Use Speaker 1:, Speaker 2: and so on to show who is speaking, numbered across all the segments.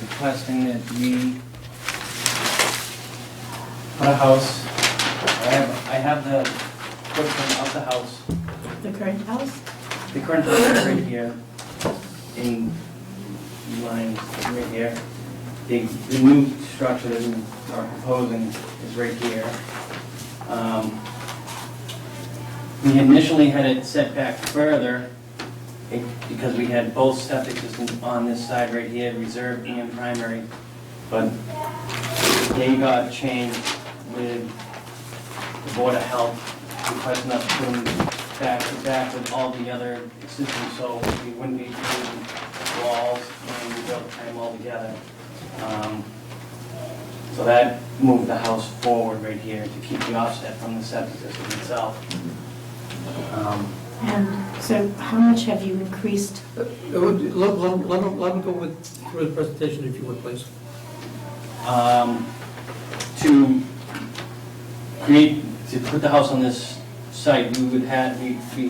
Speaker 1: requesting that we put a house, I have, I have the footprint of the house,
Speaker 2: The current house?
Speaker 1: the current footprint right here, in line right here. The, the new structure that we are proposing is right here. Um, We initially had it set back further, it- because we had both septic systems on this side right here, reserve and primary, but they got changed with the Board of Health requesting us to put them back to back with all the other systems, so we wouldn't be doing walls and we built them all together. Um, So that moved the house forward right here to keep the offset from the septic system itself. Um,
Speaker 2: And so how much have you increased?
Speaker 3: Uh, would- Let, let, let him- let him go with, through the presentation if you would, please.
Speaker 1: um, to create, to put the house on this site, we would have, we, we,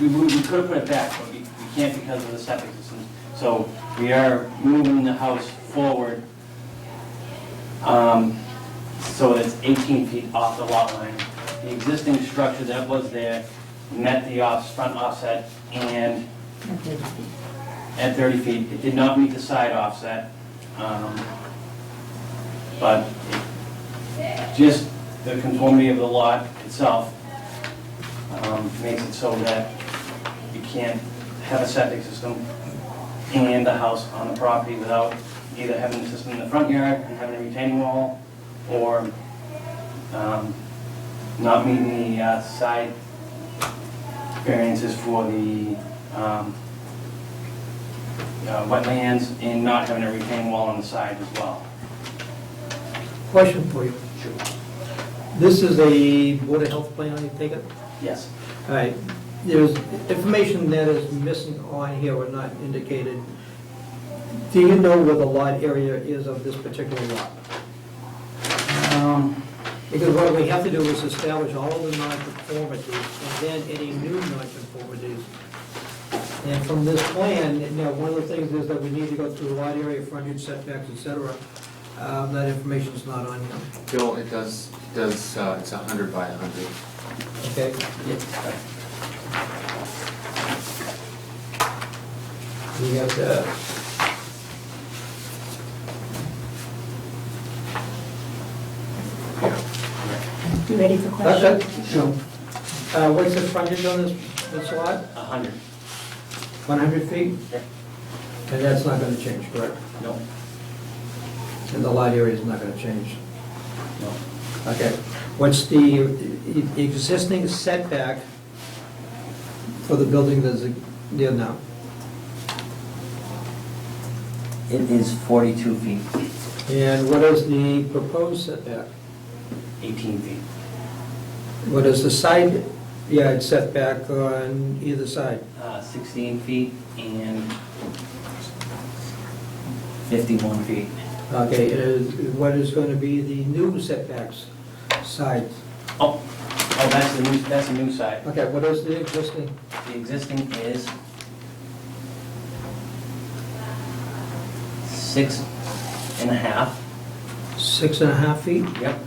Speaker 1: we would, we could have put it back, but we, we can't because of the septic system. So we are moving the house forward, um, so it's eighteen feet off the lot line. The existing structure that was there met the off, front offset and at 30 feet. It did not meet the side offset. um, But just the conformity of the lot itself um, makes it so that you can't have a septic system and a house on the property without either having the system in the front yard and having a retaining wall or um, not meeting the uh, side variances for the um, uh, wetlands and not having a retaining wall on the side as well.
Speaker 3: Question for you.
Speaker 1: Sure.
Speaker 3: This is a Board of Health plan, I take it?
Speaker 1: Yes.
Speaker 3: All right, there's information that is missing on here or not indicated. Do you know where the lot area is of this particular lot?
Speaker 1: Um,
Speaker 3: Because what we have to do is establish all of the nonconformities and then any new nonconformities. And from this plan, now, one of the things is that we need to go through lot area, frontage setbacks, et cetera. Um, That information's not on here,
Speaker 4: Bill, it does, it does, uh, it's 100 by 100.
Speaker 3: okay? We uh, have to...
Speaker 2: You ready for
Speaker 3: That's
Speaker 2: questions?
Speaker 3: it? Sure. Uh, What's the frontage on this, this lot?
Speaker 1: 100.
Speaker 3: 100 feet?
Speaker 1: Yep.
Speaker 3: And that's not going to change, correct?
Speaker 1: No,
Speaker 3: And the lot area is not going to change.
Speaker 1: no.
Speaker 3: Okay, what's the e- existing setback for the building that's there now?
Speaker 1: It is 42 feet.
Speaker 3: And what is the proposed setback?
Speaker 1: 18 feet.
Speaker 3: What is the side yard setback on either side?
Speaker 1: Uh, 16 feet and 51 feet.
Speaker 3: Okay, it is- what is going to be the new setbacks side?
Speaker 1: Oh, oh, that's the new, that's the new side.
Speaker 3: Okay, what is the existing?
Speaker 1: The existing is 6 and a half.
Speaker 3: Six and a half feet?
Speaker 1: Yep.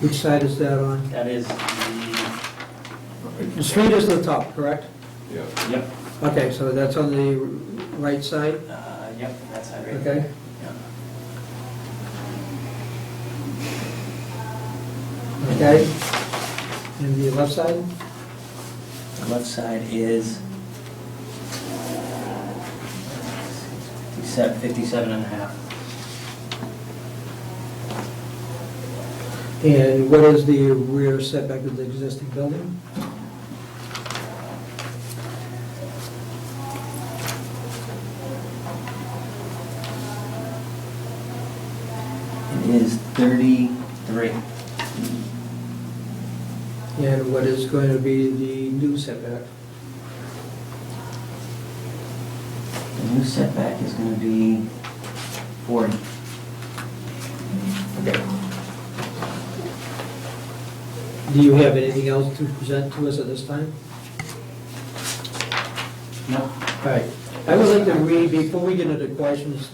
Speaker 3: Which side is that on?
Speaker 1: That is the,
Speaker 3: The street is the top, correct?
Speaker 4: Yeah.
Speaker 1: yep,
Speaker 3: Okay, so that's on the right side,
Speaker 1: uh, yep, that side right there.
Speaker 3: okay?
Speaker 1: Yeah.
Speaker 3: Okay. And the left side?
Speaker 1: The left side is 57 57 and a half.
Speaker 3: And what is the rear setback of the existing building?
Speaker 1: It is 33.
Speaker 3: And what is going to be the new setback?
Speaker 1: The new setback is going to be 40.
Speaker 3: Okay. Do you have anything else to present to us at this time?
Speaker 1: No.
Speaker 3: All right. I would like to read, before we get into questions,